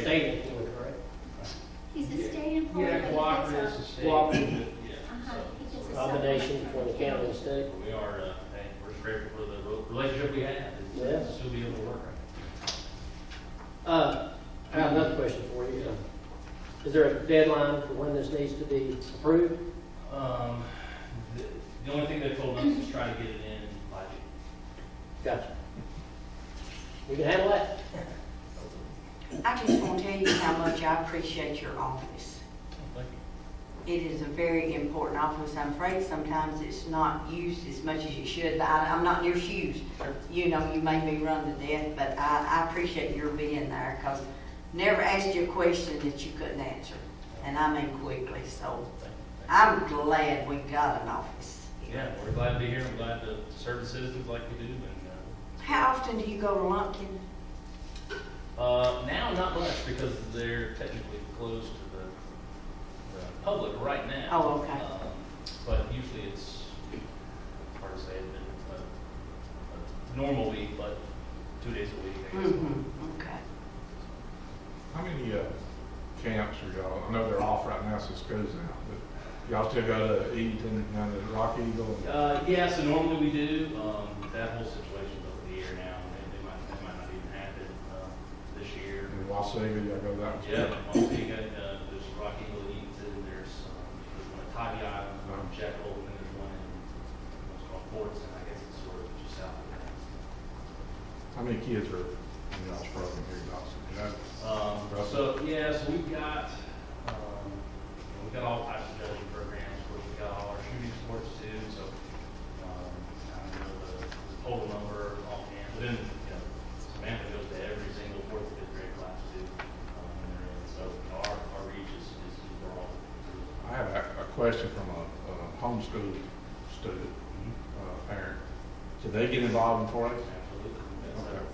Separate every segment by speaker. Speaker 1: related to it, right?
Speaker 2: He's a state employee.
Speaker 3: Yeah,
Speaker 2: but he gets a-
Speaker 3: cooperative is the state.
Speaker 1: Cooperative.
Speaker 2: Uh-huh, he
Speaker 3: So-
Speaker 2: gets a
Speaker 1: Combination
Speaker 2: supplement
Speaker 1: for
Speaker 2: from
Speaker 1: the county and state.
Speaker 3: We are, uh, hey, we're just grateful for the re- relationship we have,
Speaker 1: Yeah.
Speaker 3: and still be able to work.
Speaker 1: Uh, I have another question for you. Uh, Is there a deadline for when this needs to be approved?
Speaker 3: Um, the, the only thing they told us is try to get it in by June.
Speaker 1: Gotcha. We can handle that?
Speaker 4: I just want to tell you how much I appreciate your office.
Speaker 3: Oh, Thank
Speaker 4: It is a very important office. I'm afraid sometimes it's not used as much as it should. I, I'm not in your shoes. You know, you may be run to death, but I, I appreciate your being there because never asked you a question that you couldn't answer. And I mean quickly, so
Speaker 3: you. Thank you.
Speaker 4: I'm glad we got an office.
Speaker 3: Yeah, we're glad to be here, we're glad to serve the citizens like we do, and,
Speaker 4: How often do you go to Lumpkin?
Speaker 3: uh, uh, now not much, because they're technically closed to the, the public right now.
Speaker 4: Oh, okay.
Speaker 3: Um, But usually it's, it's hard to say, it's been a, a normal week, but two days a week, I guess.
Speaker 4: Mm-hmm, okay.
Speaker 5: How many uh, camps are y'all? I know they're off right now, so it's goes now. But y'all still got uh, to eat and down to Rock Eagle.
Speaker 3: Uh, yeah, so normally we do, um, that whole situation's over the year now, and they might, they might not even happen, uh, this year.
Speaker 5: And Wasega, y'all go that way.
Speaker 3: Yeah, Montego, uh, there's Rocky Hill Eaton, there's, um, there's one at Tybee Island, one in Jekyll, and then there's one in, what's called Forts, and I guess it's sort of just south of that.
Speaker 5: How many kids are in y'all's program here, Dawson? You know?
Speaker 3: Um, so, yeah, so we've got, um, we've got all types of judging programs, where we've got all our shooting sports too, so, um, I don't know the the total number offhand, but then, you know, Samantha goes to every single fourth, fifth grade class too. um, and they're in. So our, our reach is, is broad.
Speaker 5: I have a, a question from a, a homeschool student, uh, parent. Should they get involved in 4 H?
Speaker 3: Absolutely. That's
Speaker 5: Okay.
Speaker 3: it.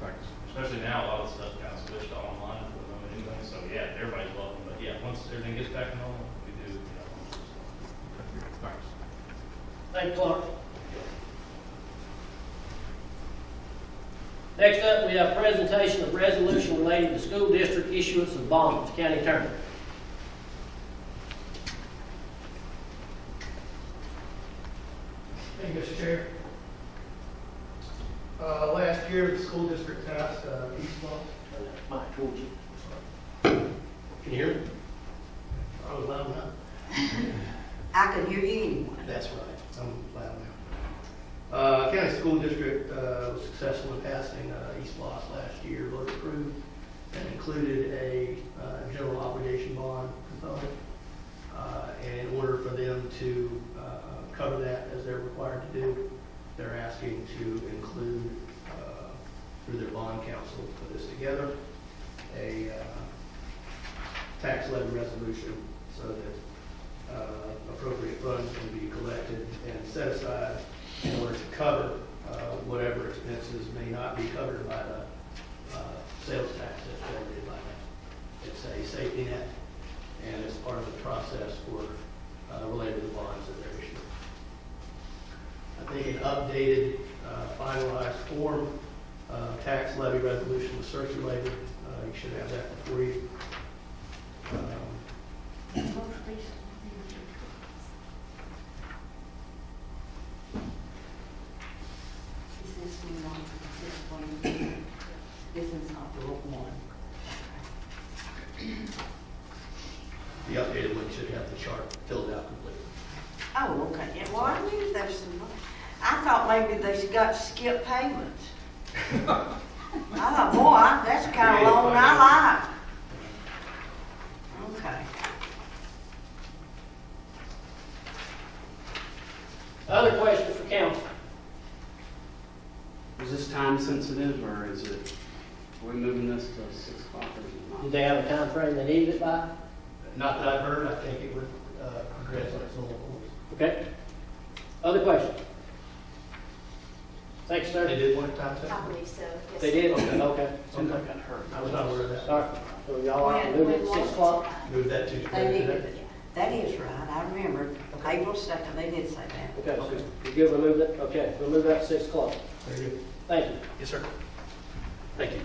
Speaker 5: Thanks.
Speaker 3: Especially now, a lot of stuff got switched to online for them anyway, so yeah, everybody's welcome, but yeah, once everything gets back to normal, we do, you know.
Speaker 5: Thanks.
Speaker 1: Thank you, Clark. Next up, we have presentation of resolution relating to school district issuance of bonds, county attorney.
Speaker 6: Thank you, Mr. Chair. Uh, Last year, the school district passed uh, these laws.
Speaker 1: Mike, told you. Can you hear me?
Speaker 6: I was loud enough.
Speaker 4: I could hear you anyway.
Speaker 6: That's right, I'm loud now. Uh, County School District uh, was successful in passing uh, East Los last year, was approved, and included a uh, general obligation bond component. Uh, And in order for them to uh, cover that as they're required to do, they're asking to include, uh, through their bond council, put this together, a uh, tax levy resolution so that uh, appropriate funds can be collected and set aside in order to cover uh, whatever expenses may not be covered by the uh, sales tax that's generated by that. It's a safety net, and it's part of the process for, uh, related to the bonds that they're issuing. I think an updated, uh, finalized form of tax levy resolution was circulated. Uh, You should have that before you. Um,
Speaker 4: Is this one, on? Is this one, this is not the one.
Speaker 6: The updated one should have the chart filled out completely.
Speaker 4: Oh, okay, yeah, well, I knew there was some, money. I thought maybe they got to skip payments. I thought, boy, I- that's the kind of loan I like. Okay,
Speaker 1: Other questions for council?
Speaker 7: Is this time sensitive, or is it, are we moving this to six o'clock or
Speaker 1: Did
Speaker 7: not?
Speaker 1: they have a time frame they needed it by?
Speaker 6: Not that I've heard, I think it would uh, progress on its own course.
Speaker 1: Okay. Other questions? Thanks,
Speaker 6: They
Speaker 1: sir.
Speaker 6: did one time,
Speaker 2: the- I
Speaker 6: so.
Speaker 2: believe so, yes.
Speaker 1: They did? Okay.
Speaker 7: Seems like I heard.
Speaker 6: I was not aware of
Speaker 1: All
Speaker 6: that.
Speaker 1: right. So y'all out and move it at six o'clock?
Speaker 6: Move that to
Speaker 4: they
Speaker 6: today.
Speaker 4: did, that is right, I remember, April second, they did say that.
Speaker 1: Okay, so you good, we'll move that, okay, we'll move that to six o'clock.
Speaker 6: Very good.
Speaker 1: Thank you.
Speaker 6: Yes, sir.
Speaker 1: Thank you.